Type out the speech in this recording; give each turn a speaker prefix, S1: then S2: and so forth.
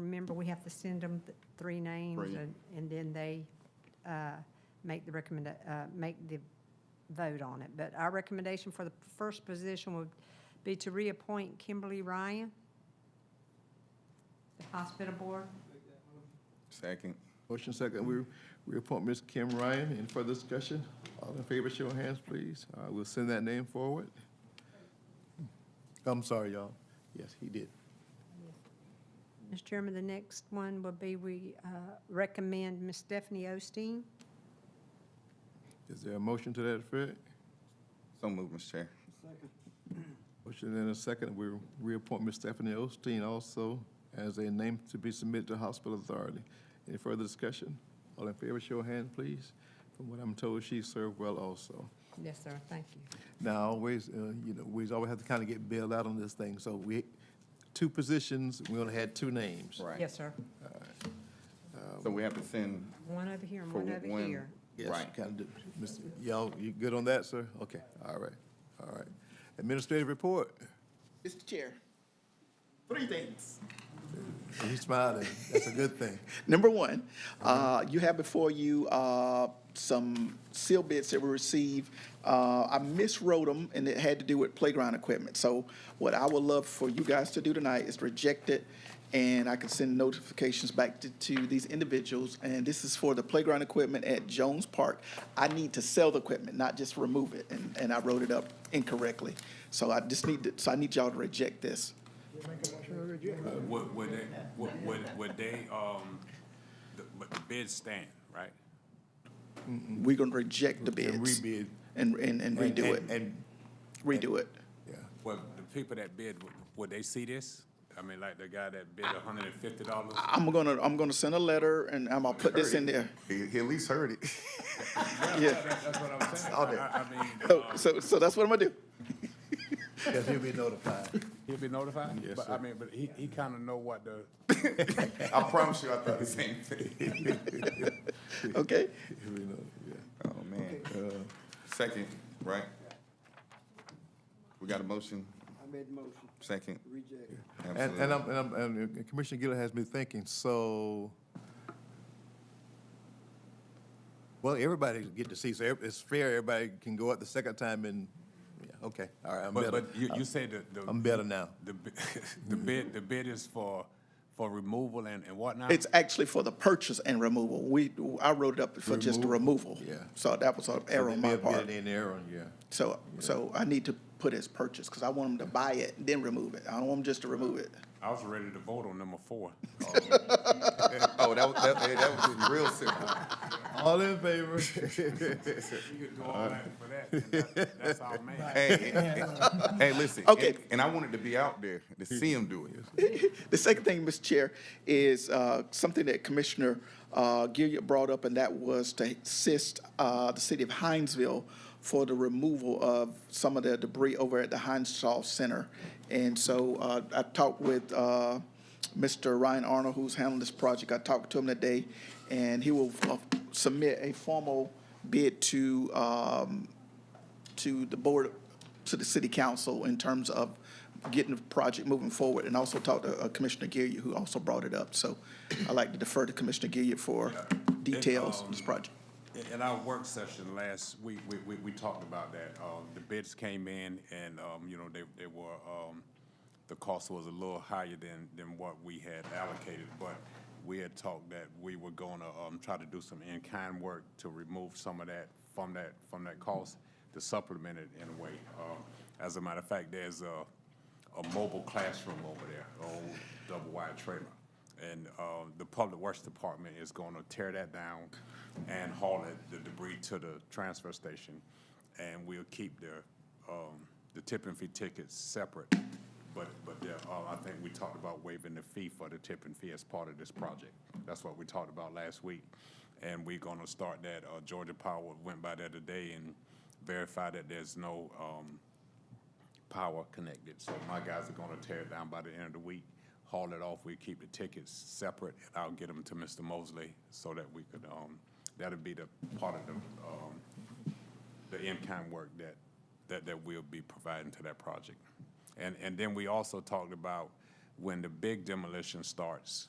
S1: remember, we have to send them th- three names,
S2: Three.
S1: and, and then they uh, make the recommend, uh, make the vote on it. But our recommendation for the first position would be to reappoint Kimberly Ryan, the hospital board.
S3: Second.
S2: Motion second, we reappoint Ms. Kim Ryan. Any further discussion? All in favor, show of hands, please. Uh, We'll send that name forward. I'm sorry, y'all. Yes, he did.
S1: Mr. Chairman, the next one would be we uh, recommend Ms. Stephanie Osteen.
S2: Is there a motion to that effect?
S3: So moved, Mr. Chair.
S2: Motion in a second, we reappoint Ms. Stephanie Osteen also as a name to be submitted to hospital authority. Any further discussion? All in favor, show of hands, please. From what I'm told, she served well also.
S1: Yes, sir, thank you.
S2: Now, always, uh, you know, we always have to kind of get bailed out on this thing, so we, two positions, we only had two names.
S3: Right.
S1: Yes, sir.
S3: So we have to send
S1: One over here and
S3: for
S1: one over
S3: one.
S1: here.
S2: Yes,
S3: Right.
S2: kind of, Mr. Y'all, you good on that, sir? Okay, all right, all right. Administrative report,
S4: Mr. Chair. Three things.
S2: he's smiling, that's a good thing.
S4: Number one, uh, you have before you uh, some seal bids that were received. Uh, I miswrote them, and it had to do with playground equipment. So what I would love for you guys to do tonight is reject it, and I can send notifications back to- to these individuals. And this is for the playground equipment at Jones Park. I need to sell the equipment, not just remove it, and and I wrote it up incorrectly. So I just need, to- so I need y'all to reject this.
S5: Would, would they, would, would, would they, um, the, but the bids stand, right?
S4: We're gonna reject the bids.
S2: And rebid.
S4: And, and, and redo
S2: And-
S4: it,
S2: And,
S4: redo it.
S2: yeah,
S5: Well, the people that bid, would, would they see this? I mean, like the guy that bid a hundred and fifty dollars?
S4: I'm gonna, I'm gonna send a letter and I'm gonna put this in there.
S3: He, he at least heard it.
S4: Yeah,
S5: That's what I'm saying.
S2: Out there.
S5: I, I mean,
S4: so,
S5: um,
S4: so, so that's what I'm gonna do.
S2: because he'll be notified.
S5: he'll be notified?
S2: Yes,
S5: But
S2: sir.
S5: I mean, but he, he kinda know what the,
S3: I promise you, I thought the same thing.
S4: Okay,
S2: He'll be notified,
S3: Oh, man.
S2: yeah. Uh,
S3: Second, right? We got a motion,
S6: I made the motion,
S3: second.
S6: reject.
S2: And, and
S3: Absolutely.
S2: I'm, and I'm, and Commissioner Gill has me thinking, so, well, everybody get to see, so every- it's fair, everybody can go up the second time and, yeah, okay, all right, I'm
S5: but,
S2: better.
S5: but you, you say the, the.
S2: I'm better now.
S5: The, bi- the bid, the bid is for, for removal and, and whatnot?
S4: it's actually for the purchase and removal. We, I wrote it up for just the removal.
S2: yeah.
S4: So that was an error on
S2: They may
S4: my
S2: have
S4: part.
S2: been in there on- yeah.
S4: So, so I need to put as purchase, cause I want them to buy it, then remove it. I don't want them just to remove it.
S5: I was ready to vote on number four.
S3: Oh, that was, that, hey, that was real simple.
S2: All in favor?
S5: You could go all out for that, and that, that's our man.
S3: Hey, hey, hey, listen.
S4: Okay.
S3: and- And I wanted to be out there to see him do it.
S4: The second thing, Mr. Chair, is uh, something that Commissioner uh, Gilliard brought up, and that was to assist uh, the city of Hinesville for the removal of some of the debris over at the Hinesville Center. And so uh, I talked with uh, Mr. Ryan Arnold, who's handling this project. I talked to him today, and he will uh, submit a formal bid to um, to the board, to the city council in terms of getting the project moving forward, and also talked to uh, Commissioner Gilliard, who also brought it up. So I'd like to defer to Commissioner Gilliard for details of this project.
S5: In- In our work session last week, we, we, we talked about that. Um, the bids came in and, um, you know, they, they were, um, the cost was a little higher than, than what we had allocated, but we had talked that we were gonna, um, try to do some in-kind work to remove some of that from that, from that cost to supplement it in a way. Um, as a matter of fact, there's a, a mobile classroom over there, Oh, a old double-wide trailer. And uh, the Public Works Department is going to tear that down and haul it, the debris to the transfer station. And we'll keep the, um, the tip and fee tickets separate. But, but there are- I think we talked about waiving the fee for the tip and fee as part of this project. That's what we talked about last week. And we're going to start that. Uh, Georgia Power went by there today and verified that there's no um, power connected. So my guys are gonna tear it down by the end of the week, haul it off, we keep the tickets separate, and I'll get them to Mr. Mosley so that we could, um, that'll be the part of the, um, the in-kind work that, that, that we'll be providing to that project. And, and then we also talked about when the big demolition starts,